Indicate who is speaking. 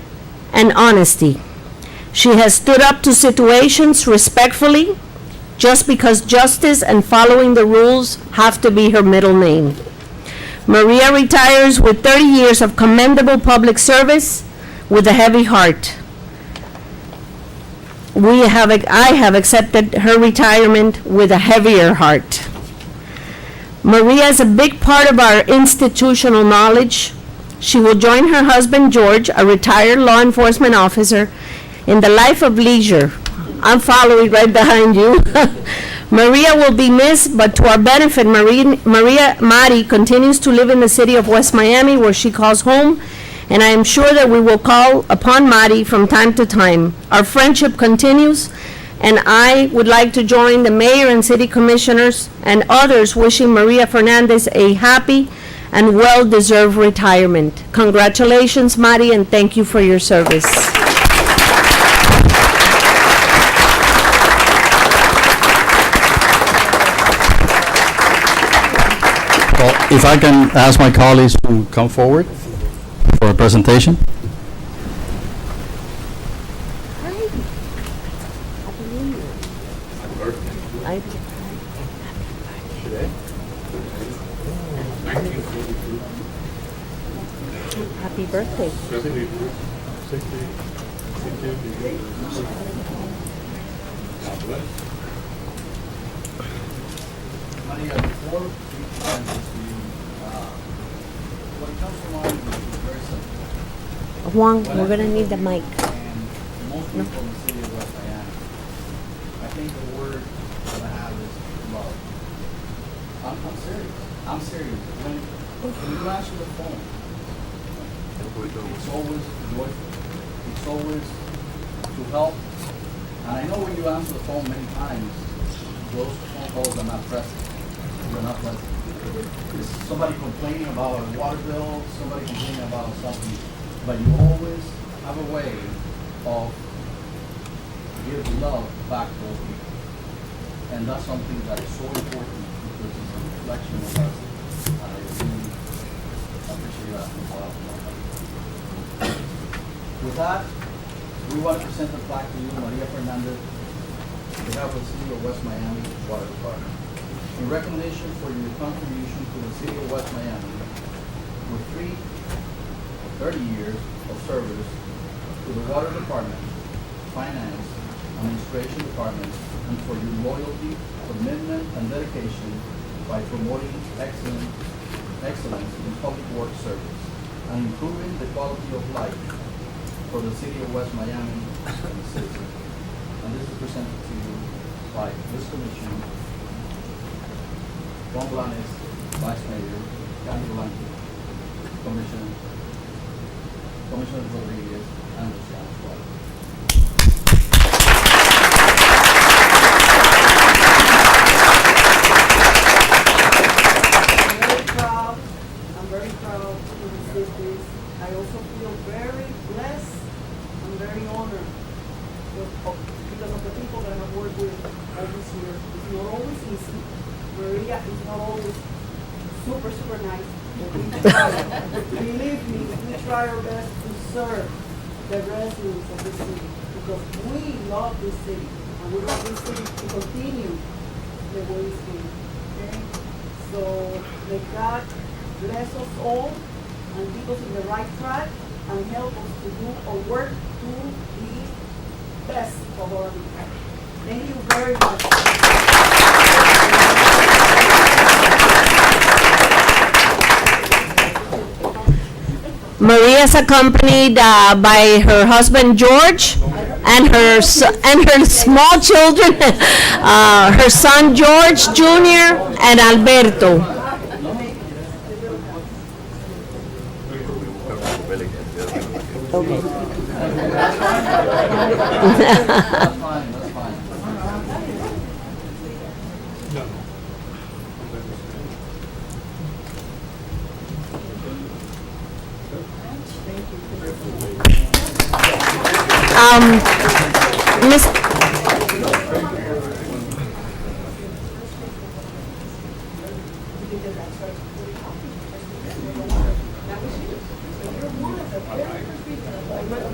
Speaker 1: and honesty. She has stood up to situations respectfully, just because justice and following the rules have to be her middle name. Maria retires with 30 years of commendable public service with a heavy heart. We have, I have accepted her retirement with a heavier heart. Maria is a big part of our institutional knowledge. She will join her husband George, a retired law enforcement officer, in the life of leisure. I'm following right behind you. Maria will be missed, but to our benefit, Maria, Maria Mari continues to live in the city of West Miami where she calls home, and I am sure that we will call upon Mari from time to time. Our friendship continues, and I would like to join the mayor and city commissioners and others wishing Maria Fernandez a happy and well-deserved retirement. Congratulations, Mari, and thank you for your service.
Speaker 2: Well, If I can ask my colleagues to come forward for a presentation.
Speaker 1: Happy birthday.
Speaker 3: Maria, before we come to you, uh, what comes to mind is very simple,
Speaker 1: Juan, we're gonna need the mic.
Speaker 3: and most people in the city of West Miami, I think the word that I have is love. I'm, I'm serious, I'm serious. When, when you answer the phone, it's always joyful, it's always to help. And I know when you answer the phone many times, those phone calls are not present, they're not present. It's somebody complaining about a water bill, somebody complaining about something, but you always have a way of give love back to those people. And that's something that is so important because it's a reflection of us. And I really appreciate you asking about With that, we want to present the plaque to you, Maria Fernandez, on behalf of the City of West Miami Water Department. In recognition for your contribution to the City of West Miami, with three 30 years of service to the Water Department, Finance, Administration Department, and for your loyalty, commitment, and dedication by promoting excellence, excellence in public works service and improving the quality of life for the city of West Miami and the citizens. And this is presented to you by this commission, Juan Blanes, Vice Mayor, Candy Blanco, Commissioner, Commissioner Rodriguez, and the staff.
Speaker 4: I'm very proud, I'm very proud to receive this. I also feel very blessed, I'm very honored with- of- because of the people that I've worked with all this year. It's not always easy. Maria is not always super, super nice. but we try. Believe me, we try our best to serve the residents of this city because we love this city and we want this city to continue the way it's been. Okay? So may God bless us all and keep us in the right track and help us to do our work to the best of our people. Thank you very much.
Speaker 1: Maria is accompanied uh, by her husband George and her s- and her small children, uh, her son George Jr. and Alberto.
Speaker 3: That's fine, that's fine.
Speaker 1: Um, Miss-